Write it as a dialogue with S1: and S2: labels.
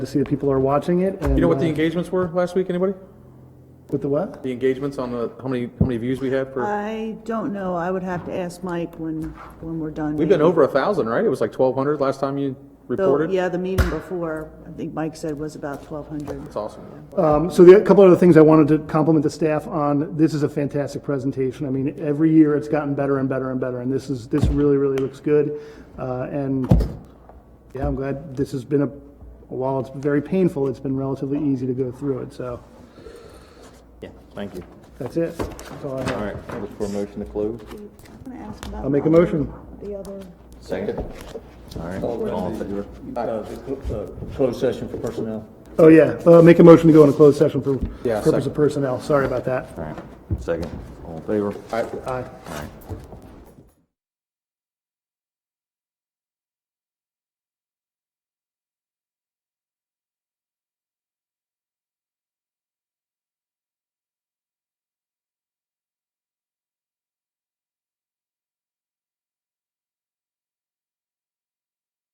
S1: to see that people are watching it. And,
S2: You know what the
S1: uh,
S2: engagements were last week, anybody?
S1: With the what?
S2: The engagements on the, how many, how many views we had for,
S3: I don't know, I would have to ask Mike when, when we're done.
S2: we've been
S3: maybe.
S2: over a thousand, right? It was like twelve hundred last time you
S3: The-
S2: reported?
S3: Yeah, the meeting before, I think Mike said was about twelve hundred.
S2: That's awesome.
S1: Um, so the, a couple other things I wanted to compliment the staff on. This is a fantastic presentation. I mean, every year it's gotten better and better and better, and this is this really really looks good. Uh, and yeah, I'm glad this has been a. While it's very painful, it's been relatively easy to go through it. So
S4: Yeah, thank you.
S1: that's it. That's all I have.
S4: All right, I look for a motion to close.
S1: I'll make a motion.
S3: The other.
S4: Second. All right, all in favor?
S5: Uh, Closed session for personnel.
S1: Oh yeah, uh, make a motion to go into closed session for
S2: Yeah,
S1: purpose
S2: second.
S1: of personnel. Sorry about that.
S4: All right, second, all in favor?
S1: Aye.